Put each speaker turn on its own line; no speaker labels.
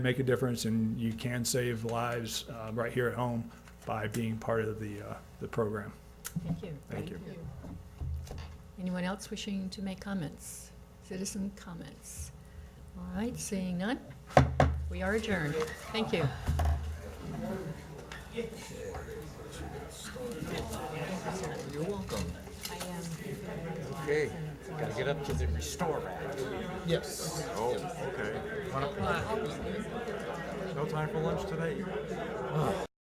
make a difference, and you can save lives uh, right here at home by being part of the, uh, the program.
Thank you.
Thank you.
Anyone else wishing to make comments? Citizen comments? All right, seeing none, we are adjourned. Thank you.
You're welcome.
I am,
Okay.
Gotta get up to the restore rack.
Yes.
Oh, okay. One o'clock. No time for lunch today?